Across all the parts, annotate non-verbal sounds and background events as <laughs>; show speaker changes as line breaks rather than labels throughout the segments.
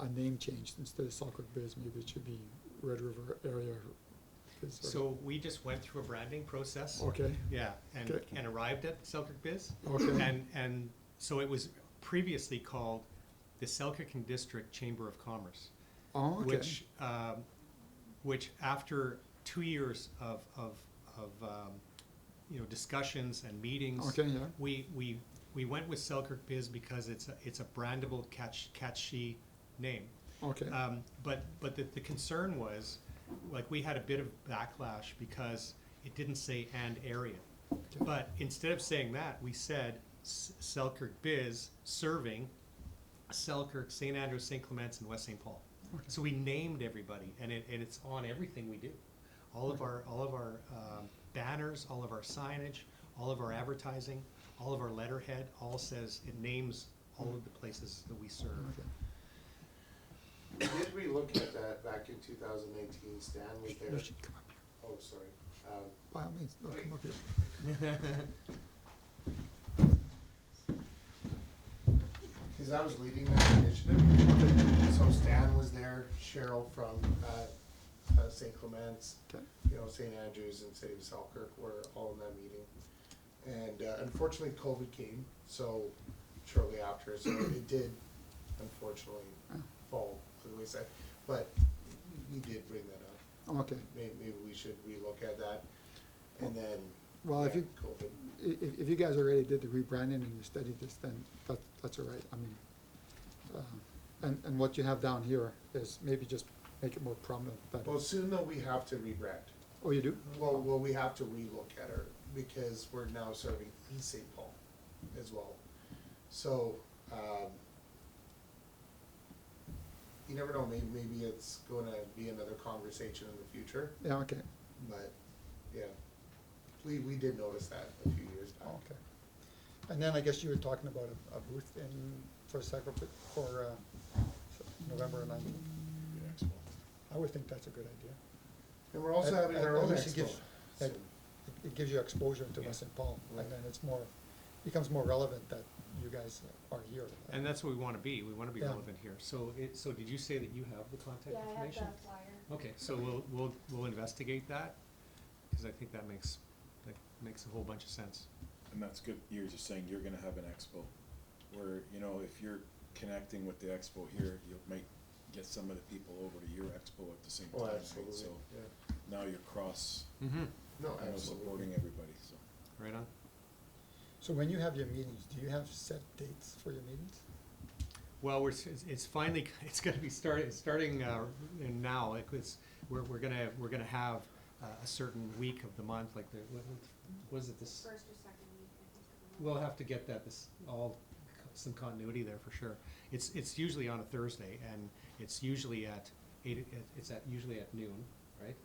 a name change, instead of Sauk River Bears, maybe it should be Red River Area. Biz or-
So we just went through a branding process.
Okay,
Yeah, and,
Okay.
and arrived at Selkirk Biz.
okay,
And, and so it was previously called the Selkirk and District Chamber of Commerce,
oh, okay,
which, um, which after two years of, of, of, um, you know, discussions and meetings.
okay, yeah,
We, we, we went with Selkirk Biz because it's, a- it's a brandable catch, catchy name.
okay,
Um, but but the, the concern was, like, we had a bit of backlash because it didn't say and area. But instead of saying that, we said S- Selkirk Biz serving Selkirk, St. Andrews, St. Clements, and West St. Paul.
Okay.
So we named everybody, and it, and it's on everything we do. All of our all of our um, banners, all of our signage, all of our advertising, all of our letterhead, all says it names all of the places that we serve.
okay.
Did we look at that back in two thousand eighteen, Stan, was
You
there,
should come up here.
oh, sorry. Um,
By all means, no, come up here.
Cause I was leading that initiative, so Stan was there, Cheryl from, uh, uh, St. Clements,
Okay,
you know, St. Andrews and City of Selkirk were all in that meeting. And uh, unfortunately, COVID came, so shortly after, so it did unfortunately fall to the wayside. But you did bring that up,
okay.
maybe, maybe we should relook at that, and then,
Well, if
yeah,
you-
COVID.
I- If, if you guys already did the rebranding and you studied this, then that, that's all right, I mean, uh, and, and what you have down here is maybe just make it more prominent, but,
Well, soon though, we have to rebrand.
oh, you do?
Well, well, we have to relook at her because we're now serving East St. Paul as well. So, um, you never know, maybe, maybe it's gonna be another conversation in the future,
Yeah, okay,
but, yeah. We, we did notice that a few years back.
Oh, okay. And then I guess you were talking about a, a booth in, for Sacra, for, uh, November nineteenth. I would think that's a good idea.
And we're also
At-
having
at-
our
at
own
least it
expo.
gives-
soon.
at- it- it gives you exposure into
Yeah.
West St. Paul,
Right.
and then it's more, becomes more relevant that you guys are here.
And that's what we want to be, we want to be
Yeah.
relevant here. So it, so did you say that you have the contact
Yeah, I have
information?
that flyer.
Okay, so we'll, we'll, we'll investigate that, because I think that makes, that makes a whole bunch of sense.
And that's good, you're just saying you're gonna have an expo, where, you know, if you're connecting with the expo here, you might get some of the people over to your expo at the same time,
Oh,
right?
absolutely,
So
yeah.
now you're cross,
Mm-hmm.
No,
you know, supporting
absolutely.
everybody, so.
Right on?
So when you have your meetings, do you have set dates for your meetings?
Well, we're, s- it's- it's finally, <laughs> it's gonna be starting, starting, uh, in now, like, it's, we're, we're gonna, we're gonna have uh, a certain week of the month, like, the, what, what was it this?
First or second week, I think. of the month.
We'll have to get that, this, all, co- some continuity there for sure. It's, it's usually on a Thursday, and it's usually at eight, it's at, usually at noon, right?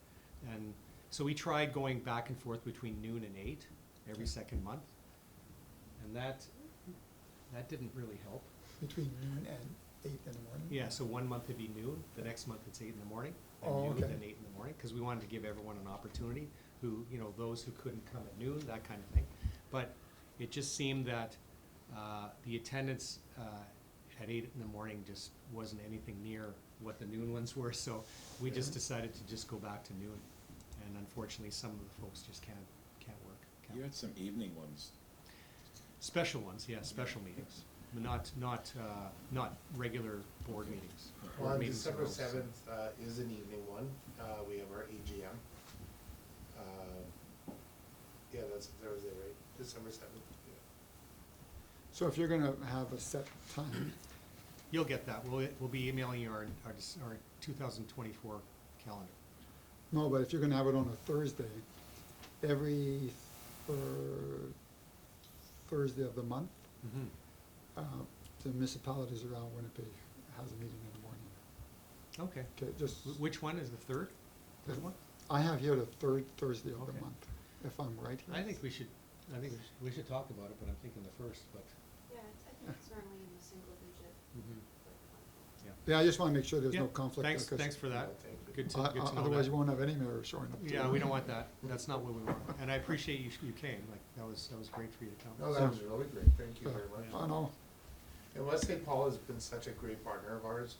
And so we try going back and forth between noon and eight every second month. And that, that didn't really help.
Between noon and eight in the morning?
Yeah, so one month it'd be noon, the next month it's eight in the morning,
Oh,
and noon,
okay.
then eight in the morning, because we wanted to give everyone an opportunity, who, you know, those who couldn't come at noon, that kind of thing. But it just seemed that uh, the attendance uh, at eight in the morning just wasn't anything near what the noon ones were, so we just decided to just go back to noon. And unfortunately, some of the folks just can't, can't work. can't
You had some evening ones,
Special ones, yeah, special meetings, not, not, uh, not regular board meetings. Board
On
meetings are
December
always-
seventh, uh, is an evening one, uh, we have our AGM. Uh, Yeah, that's Thursday, right, December seventh, yeah.
So if you're gonna have a set time,
You'll get that, we'll, we'll be emailing you our, our, dis- our two thousand twenty-four calendar.
no, but if you're gonna have it on a Thursday, every thir- Thursday of the month, uh, the municipalities around Winnipeg has a meeting in the morning.
Okay,
Okay, just.
Wh- which one is the third?
The-
Third one?
I have here the third Thursday of the
Okay.
month, if I'm right here.
I think we should, I think we should, we should talk about it, but I'm thinking the first, but,
Yeah, it's- I think it's normally in the single digit. like,
yeah.
Yeah, I just wanna make sure there's
Yeah,
no conflict.
Thanks,
because
thanks for that,
Yeah, thank you.
good to,
o-
good to know
o-
that.
Otherwise, you won't have any mayor showing up.
Yeah, we don't want that, that's not what we want, and I appreciate you, you came, like, that was, that was great for you to come.
No, that was really great, thank you
So,
very
I
much.
know.
And West St. Paul has been such a great partner of ours